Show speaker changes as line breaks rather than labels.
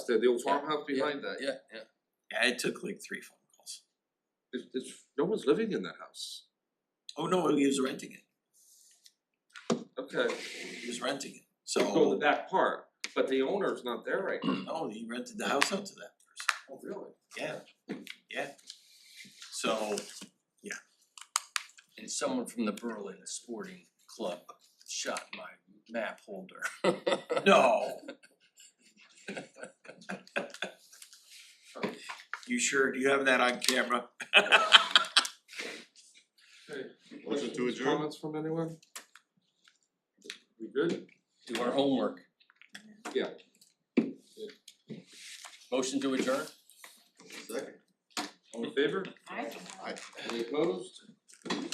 the the old farmhouse behind that,
Yeah, yeah.
Yeah, it took like three phone calls.
there's there's, no one's living in that house,
Oh no, he was renting it,
okay,
he was renting it,
so
so,
that part, but the owner's not there right now.
no, he rented the house out to that person,
Oh, really?
yeah, yeah. So,
And someone from the Berlin Sporting Club shot my map holder.
no. You sure, do you have that on camera?
Motion to
Questions,
adjourn?
Comments from anyone? We good?
Do our homework.
Yeah.
Motion to adjourn?
Second.
All in favor?
I
Any opposed?